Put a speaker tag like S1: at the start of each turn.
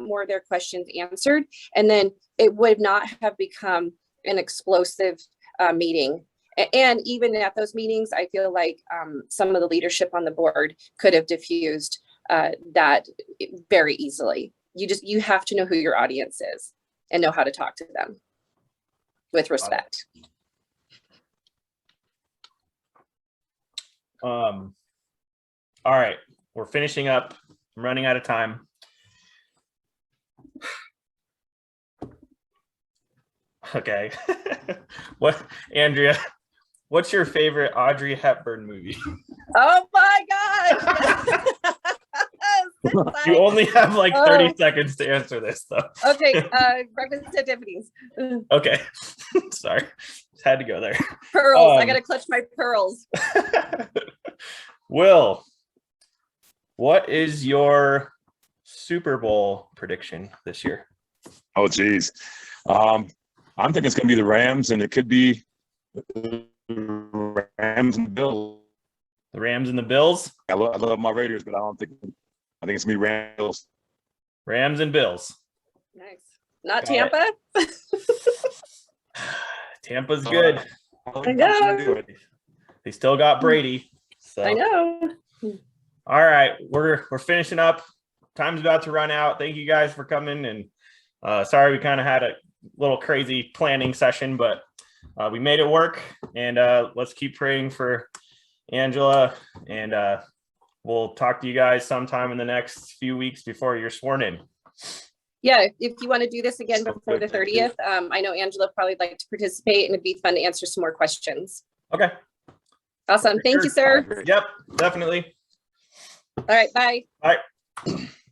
S1: more of their questions answered. And then it would not have become an explosive uh, meeting. A- And even at those meetings, I feel like um, some of the leadership on the board could have diffused uh, that very easily. You just, you have to know who your audience is and know how to talk to them with respect.
S2: Um, all right, we're finishing up. I'm running out of time. Okay. what, Andrea, what's your favorite Audrey Hepburn movie?
S1: Oh my gosh! Yes,
S2: You
S1: I-
S2: only have like
S1: Oh.
S2: 30 seconds to answer this, though.
S1: Okay, uh, breakfast at Tiffany's. Ugh,
S2: Okay. Sorry. Just had to go there.
S1: Pearls, I
S2: Um,
S1: gotta clutch my pearls.
S2: Will, what is your Super Bowl prediction this year?
S3: Oh, geez. Um, I'm thinking it's going to be the Rams, and it could be the Rams and Bills.
S2: The Rams and the Bills?
S3: I love, I love my Raiders, but I don't think I think it's going to be Rams. Bills.
S2: Rams and Bills.
S1: Nice. Not
S2: Got it.
S1: Tampa?
S2: Tampa's good.
S3: don't
S1: I
S3: think that's gonna
S1: know.
S3: do it.
S2: They still got Brady. So
S1: I know.
S2: all right, we're we're finishing up. Time's about to run out. Thank you guys for coming and uh sorry we kind of had a little crazy planning session, but uh, we made it work and uh let's keep praying for Angela and uh we'll talk to you guys sometime in the next few weeks before you're sworn in.
S1: Yeah, if- if you want to do this again
S3: Sounds
S1: before the
S3: good, thank you.
S1: thirtieth, um, I know Angela probably would like to participate and it'd be fun to answer some more questions.
S2: Okay.
S1: Awesome. Thank you, sir.
S2: sure.
S3: I agree.
S2: Yep, definitely.
S1: All right, bye.